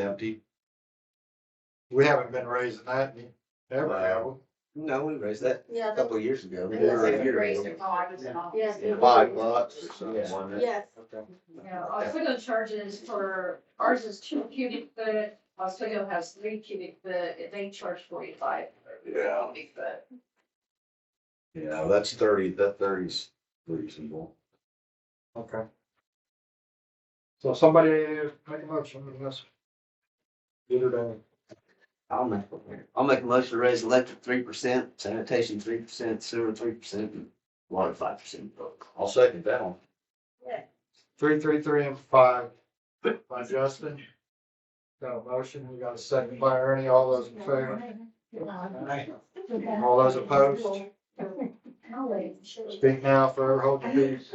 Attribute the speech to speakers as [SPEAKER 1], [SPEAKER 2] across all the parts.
[SPEAKER 1] empty.
[SPEAKER 2] We haven't been raising that in ever, have we?
[SPEAKER 1] No, we raised that
[SPEAKER 3] Yeah,
[SPEAKER 1] a
[SPEAKER 3] they,
[SPEAKER 1] couple of years ago.
[SPEAKER 3] Yeah, that's
[SPEAKER 1] Or a
[SPEAKER 3] like
[SPEAKER 1] year
[SPEAKER 4] raised
[SPEAKER 1] ago.
[SPEAKER 4] it while I was in office.
[SPEAKER 3] yes.
[SPEAKER 1] Yeah,
[SPEAKER 2] Five bucks or
[SPEAKER 1] Yeah.
[SPEAKER 2] something, wasn't it?
[SPEAKER 3] Yes,
[SPEAKER 4] Yeah, Oswego charges for, ours is two cubic foot, Oswego has three cubic foot, they charge forty-five.
[SPEAKER 1] Yeah.
[SPEAKER 4] Cubic foot.
[SPEAKER 1] Yeah, that's thirty, that thirty's reasonable.
[SPEAKER 2] Okay. So somebody make a motion on this. Get it done.
[SPEAKER 1] I'll make, I'll make a motion to raise electric three percent, sanitation three percent, sewer three percent, and water five percent. I'll second that one.
[SPEAKER 2] Three, three, three, and five by Justin. Got a motion, we got a second by Ernie, all those in favor, all those opposed, speak now forever hold your peace.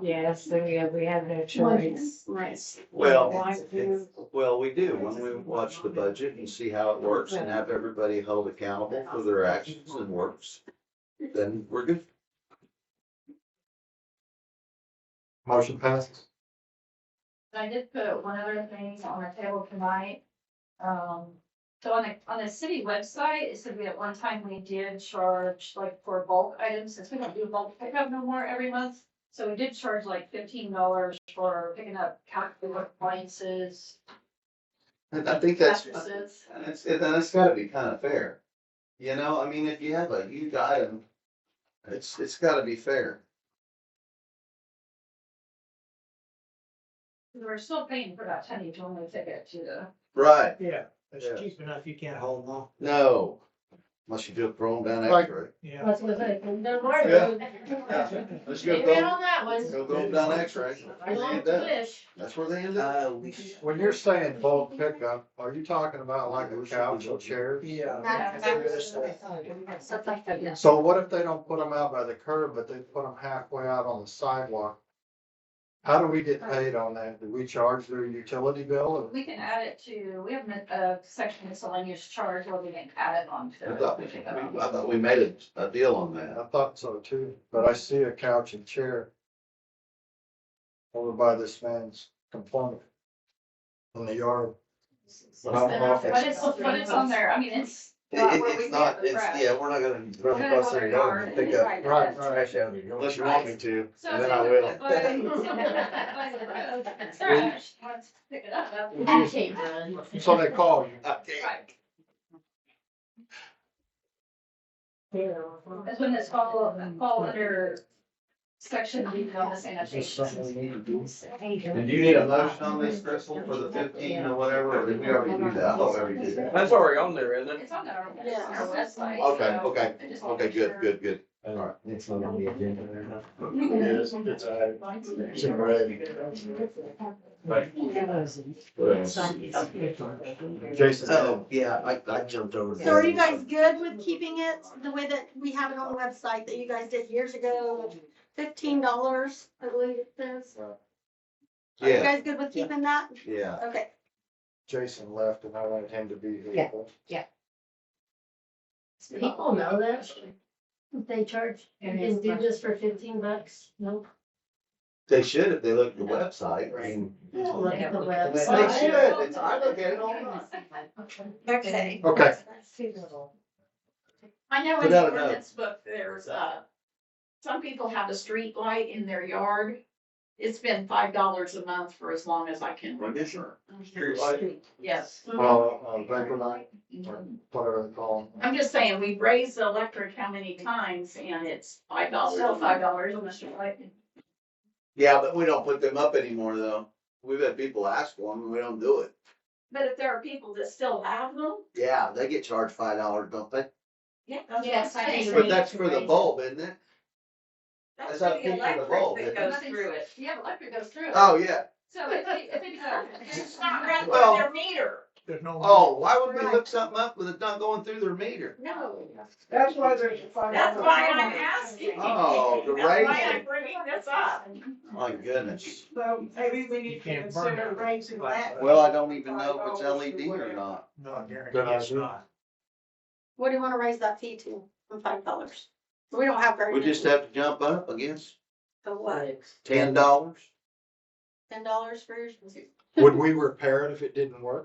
[SPEAKER 5] Yes, so we have, we have no choice.
[SPEAKER 4] Nice.
[SPEAKER 1] Well,
[SPEAKER 5] Why do-
[SPEAKER 1] well, we do, when we watch the budget and see how it works and have everybody held accountable for their actions and works, then we're good.
[SPEAKER 2] Motion passes.
[SPEAKER 4] I did put one other thing on our table tonight. Um, so on the, on the city website, it said we at one time we did charge like for bulk items, since we don't do bulk pickup no more every month. So we did charge like fifteen dollars for picking up calculator appliances,
[SPEAKER 1] And I think that's,
[SPEAKER 4] mattresses.
[SPEAKER 1] And it's, and it's gotta be kind of fair. You know, I mean, if you have a huge item, it's, it's gotta be fair.
[SPEAKER 4] We're still paying for that tiny when we take it to the.
[SPEAKER 1] Right.
[SPEAKER 6] Yeah,
[SPEAKER 1] Yeah.
[SPEAKER 6] it's cheap enough, you can't hold them all,
[SPEAKER 1] No. Unless you do it throw them down
[SPEAKER 2] Like-
[SPEAKER 1] x-ray.
[SPEAKER 6] yeah.
[SPEAKER 5] That's what I think, no more.
[SPEAKER 1] Yeah. Let's go
[SPEAKER 5] Amen
[SPEAKER 1] throw,
[SPEAKER 5] on that one.
[SPEAKER 1] go throw them down x-ray.
[SPEAKER 5] I love
[SPEAKER 1] Yeah.
[SPEAKER 5] to wish.
[SPEAKER 1] That's where they end up.
[SPEAKER 2] When you're saying bulk pickup, are you talking about like a couch or chairs?
[SPEAKER 6] Yeah.
[SPEAKER 3] Not-
[SPEAKER 5] Stuff like that, yeah.
[SPEAKER 2] So what if they don't put them out by the curb, but they put them halfway out on the sidewalk? How do we get paid on that? Do we charge their utility bill?
[SPEAKER 4] We can add it to, we have a a section miscellaneous charge where we can add it on
[SPEAKER 1] I
[SPEAKER 4] to.
[SPEAKER 1] thought, we- I thought we made a, a deal on that.
[SPEAKER 2] I thought so too, but I see a couch and chair over by this man's component on the yard. But I don't know if
[SPEAKER 4] But it's, but it's on there, I mean, it's. not
[SPEAKER 1] It-
[SPEAKER 4] where
[SPEAKER 1] it-
[SPEAKER 4] we
[SPEAKER 1] it's
[SPEAKER 4] get
[SPEAKER 1] not,
[SPEAKER 4] the
[SPEAKER 1] it's, uh,
[SPEAKER 4] trash.
[SPEAKER 1] yeah, we're not gonna
[SPEAKER 4] We're
[SPEAKER 1] run
[SPEAKER 4] gonna
[SPEAKER 1] across
[SPEAKER 4] go
[SPEAKER 1] their
[SPEAKER 4] in our
[SPEAKER 1] yard and pick up
[SPEAKER 4] yard.
[SPEAKER 2] Right, right.
[SPEAKER 1] trash out of your yard. Unless you want me to,
[SPEAKER 4] So
[SPEAKER 1] and then
[SPEAKER 4] it's
[SPEAKER 1] I
[SPEAKER 4] like
[SPEAKER 1] will.
[SPEAKER 4] a foot, but it's oh, trash, once you pick it up.
[SPEAKER 5] Actually, man.
[SPEAKER 2] So they call you.
[SPEAKER 1] Okay.
[SPEAKER 4] Right.
[SPEAKER 5] Yeah.
[SPEAKER 4] That's when it's fall, fall under section B on the sanitation.
[SPEAKER 1] And do you need a motion on this, Crystal, for the fifteen or whatever, or did we already do that? I thought we already did that.
[SPEAKER 7] That's already on there, isn't it?
[SPEAKER 4] It's on our, it's
[SPEAKER 3] Yeah.
[SPEAKER 4] on our website.
[SPEAKER 1] Okay,
[SPEAKER 4] so
[SPEAKER 1] okay,
[SPEAKER 4] I just wanna
[SPEAKER 1] okay,
[SPEAKER 4] make
[SPEAKER 1] good,
[SPEAKER 4] sure.
[SPEAKER 1] good, good.
[SPEAKER 7] All right, it's not on the agenda there now.
[SPEAKER 2] Yes, it's a, it's a red. Jason.
[SPEAKER 1] Oh, yeah, I, I jumped over.
[SPEAKER 3] so are you guys good with keeping it the way that we have it on the website that you guys did years ago? Fifteen dollars, I believe it says. Are you
[SPEAKER 1] Yeah,
[SPEAKER 3] guys good with keeping that?
[SPEAKER 1] yeah.
[SPEAKER 3] Okay,
[SPEAKER 2] Jason left and I wanted him to be here.
[SPEAKER 5] Yeah. People know that, they charge, you can do this for fifteen bucks, nope.
[SPEAKER 1] They should if they look at the website. I mean,
[SPEAKER 5] Look at the
[SPEAKER 1] They should.
[SPEAKER 5] website.
[SPEAKER 1] It's, I look at it all the time.
[SPEAKER 3] okay.
[SPEAKER 2] Okay,
[SPEAKER 8] I know in
[SPEAKER 1] Without a
[SPEAKER 8] the
[SPEAKER 1] doubt.
[SPEAKER 8] ordinance book, there's, uh, some people have a street light in their yard. It's been five dollars a month for as long as I can remember. Yes.
[SPEAKER 2] well, uh, Vapor Night, or whatever they call 'em.
[SPEAKER 8] I'm just saying, we've raised the electric how many times and it's five dollars.
[SPEAKER 4] Still five dollars on the street light.
[SPEAKER 1] Yeah, but we don't put them up anymore though. We've had people ask for them and we don't do it.
[SPEAKER 8] But if there are people that still have them,
[SPEAKER 1] Yeah, they get charged five dollars, don't they?
[SPEAKER 8] yeah. that's what I'm
[SPEAKER 4] Yes, I
[SPEAKER 8] saying.
[SPEAKER 4] think
[SPEAKER 1] But that's for the bulb, isn't it?
[SPEAKER 8] That's
[SPEAKER 1] that's how
[SPEAKER 8] for the
[SPEAKER 1] people are evolved,
[SPEAKER 8] electric that
[SPEAKER 1] isn't
[SPEAKER 8] goes
[SPEAKER 4] it?
[SPEAKER 8] through it.
[SPEAKER 4] Yeah, electric goes through it.
[SPEAKER 1] Oh, yeah.
[SPEAKER 4] So if they, if it's, uh,
[SPEAKER 8] It's not right
[SPEAKER 1] Well-
[SPEAKER 8] by their meter.
[SPEAKER 6] There's no.
[SPEAKER 1] Oh, why would we hook something up with it not going through their meter?
[SPEAKER 8] No.
[SPEAKER 7] That's why there's a five.
[SPEAKER 8] That's why I'm asking.
[SPEAKER 1] Oh, the
[SPEAKER 8] That's why
[SPEAKER 1] raising.
[SPEAKER 8] I'm bringing this up.
[SPEAKER 1] My goodness.
[SPEAKER 7] So maybe we
[SPEAKER 6] You can't burn it.
[SPEAKER 1] Well, I don't even know if it's LED or not.
[SPEAKER 6] No, I guarantee
[SPEAKER 2] Good
[SPEAKER 6] it's
[SPEAKER 2] idea.
[SPEAKER 6] not.
[SPEAKER 3] What do you want to raise that fee to from five dollars? We don't have very
[SPEAKER 1] We
[SPEAKER 3] many.
[SPEAKER 1] just have to jump up, I guess.
[SPEAKER 3] So what,
[SPEAKER 1] Ten dollars?
[SPEAKER 3] ten dollars for yours?
[SPEAKER 2] Would we repair it if it didn't work?